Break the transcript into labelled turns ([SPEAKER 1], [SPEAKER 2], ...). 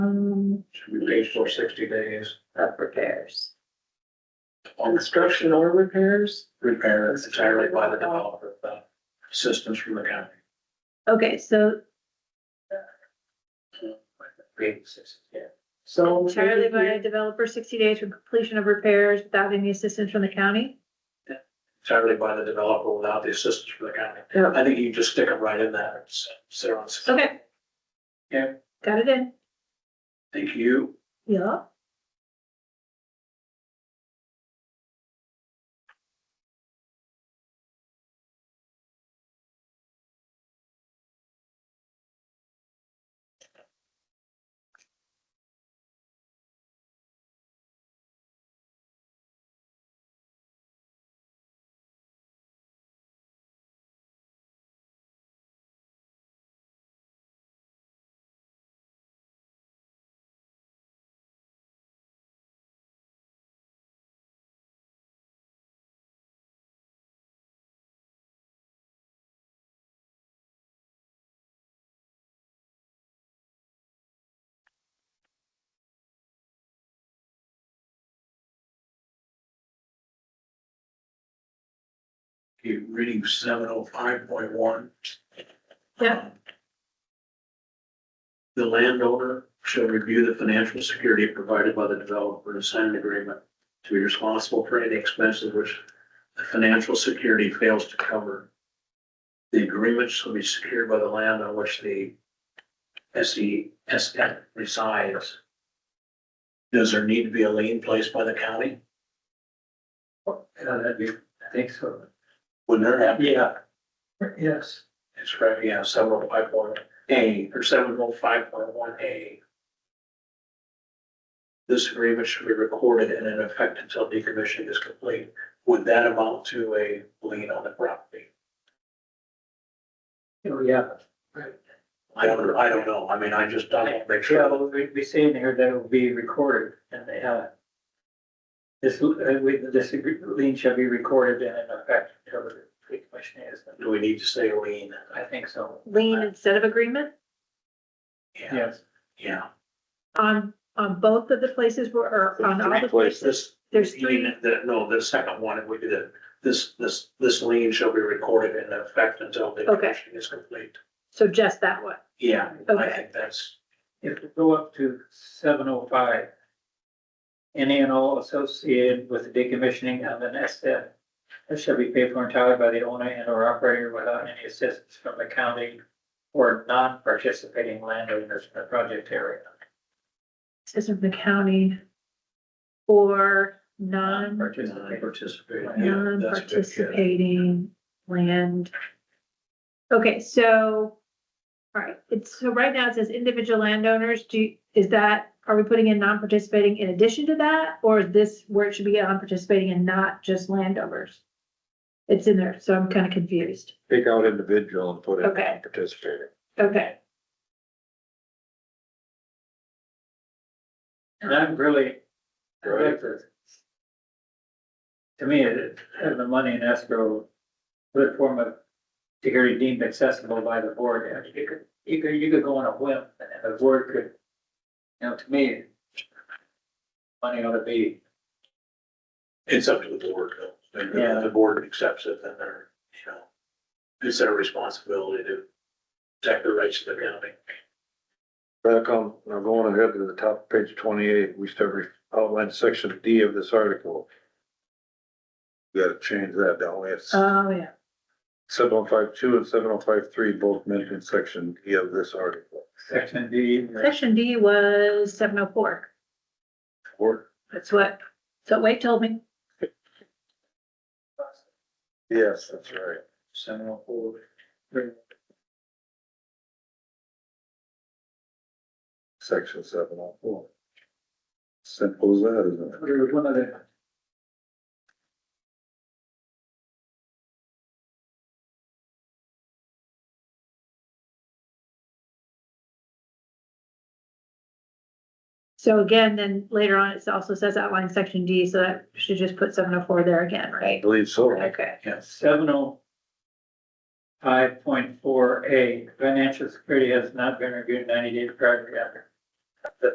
[SPEAKER 1] should be paid for sixty days.
[SPEAKER 2] of repairs.
[SPEAKER 3] Construction or repairs?
[SPEAKER 1] Repair is entirely by the developer, without assistance from the county.
[SPEAKER 2] Okay, so
[SPEAKER 1] Being six- yeah.
[SPEAKER 3] So.
[SPEAKER 2] entirely by a developer, sixty days from completion of repairs without any assistance from the county?
[SPEAKER 1] Entirely by the developer without the assistance from the county.
[SPEAKER 2] No.
[SPEAKER 1] I think you just stick it right in there and s- sit on. s-
[SPEAKER 2] Okay.
[SPEAKER 1] Yeah.
[SPEAKER 2] Got it in.
[SPEAKER 1] Thank you.
[SPEAKER 2] Yeah.
[SPEAKER 1] You reading seven oh five point one.
[SPEAKER 2] Yeah.
[SPEAKER 1] The landowner shall review the financial security provided by the developer and sign an agreement to be responsible for any expenses which the financial security fails to cover. The agreement shall be secured by the land on which the S E S N resides. Does there need to be a lien placed by the county?
[SPEAKER 4] that'd be, I think so.
[SPEAKER 1] Wouldn't there have? to be?
[SPEAKER 4] Yeah. Yes.
[SPEAKER 1] It's right, yeah, seven oh five point A or seven oh five point one A. This agreement should be recorded and in effect until decommissioning is complete. Would that amount to a lien on the property?
[SPEAKER 4] Oh, yeah.
[SPEAKER 1] I don't, I don't know. I mean, I just, I want to make
[SPEAKER 4] Yeah,
[SPEAKER 1] sure.
[SPEAKER 4] well, we, we say in here that it will be recorded and, uh, this, uh, we, this lien shall be recorded and in effect until the decommission is.
[SPEAKER 1] Do we need to say lien?
[SPEAKER 4] I think so.
[SPEAKER 2] Lien instead of agreement
[SPEAKER 4] Yes.
[SPEAKER 1] Yeah.
[SPEAKER 2] on, on both of the places where, or on all the places.
[SPEAKER 1] This.
[SPEAKER 2] There's
[SPEAKER 1] lien,
[SPEAKER 2] three.
[SPEAKER 1] The, no, the second one, we did, it. this, this, this lien shall be recorded in effect until decommissioning is complete.
[SPEAKER 2] So just that one.
[SPEAKER 1] Yeah, I
[SPEAKER 2] Okay.
[SPEAKER 1] think that's.
[SPEAKER 4] If we go up to seven oh five. Any and all associated with the decommissioning of an asset. That shall be paid for entirely by the owner and or operator without any assistance from the county. Or non-participating landowners in the project area.
[SPEAKER 2] System of the county. Or non,
[SPEAKER 4] Non-participating.
[SPEAKER 1] Participate. Yeah, that's good, yeah.
[SPEAKER 2] non-participating um, land. Okay, so. All right, it's, so right now it says individual landowners, do, you- is that, are we putting in non-participating in addition to that? Or is this where it should be non-participating and not just landowners? It's in there, so I'm kind of confused.
[SPEAKER 5] Take out individual and put in
[SPEAKER 2] Okay.
[SPEAKER 5] participating.
[SPEAKER 2] Okay,
[SPEAKER 4] And I'm really, I
[SPEAKER 5] Right.
[SPEAKER 4] like this. To me, it- having the money in escrow, good form of security deemed accessible by the board, I mean, you could, you could, you could go on a whim, and the board could, you know, to me, money ought to be,
[SPEAKER 1] It's up to the board, though. If
[SPEAKER 4] Yeah.
[SPEAKER 1] the board accepts it, then they're, you know, it's their responsibility to protect the rights of the county.
[SPEAKER 5] Back on, now going ahead to the top of page twenty-eight, we start re- outline section D of this article. We Gotta change that, don't we? It's
[SPEAKER 2] oh, yeah.
[SPEAKER 5] seven oh five two and seven oh five three both mentioned section D of this article.
[SPEAKER 4] section D.
[SPEAKER 2] um, Section D was seven oh four.
[SPEAKER 5] Or,
[SPEAKER 2] That's what, so Wade told me.
[SPEAKER 5] yes, that's right.
[SPEAKER 4] Seven oh four.
[SPEAKER 5] Section seven oh four. Simple as that, isn't it?
[SPEAKER 4] There was one other.
[SPEAKER 2] So again, then later on, it also says outline section D, so that should just put seven oh four there again,
[SPEAKER 5] I
[SPEAKER 2] right?
[SPEAKER 5] believe so.
[SPEAKER 2] Okay,
[SPEAKER 4] seven oh five point four A, financial security has not been reviewed ninety days prior to the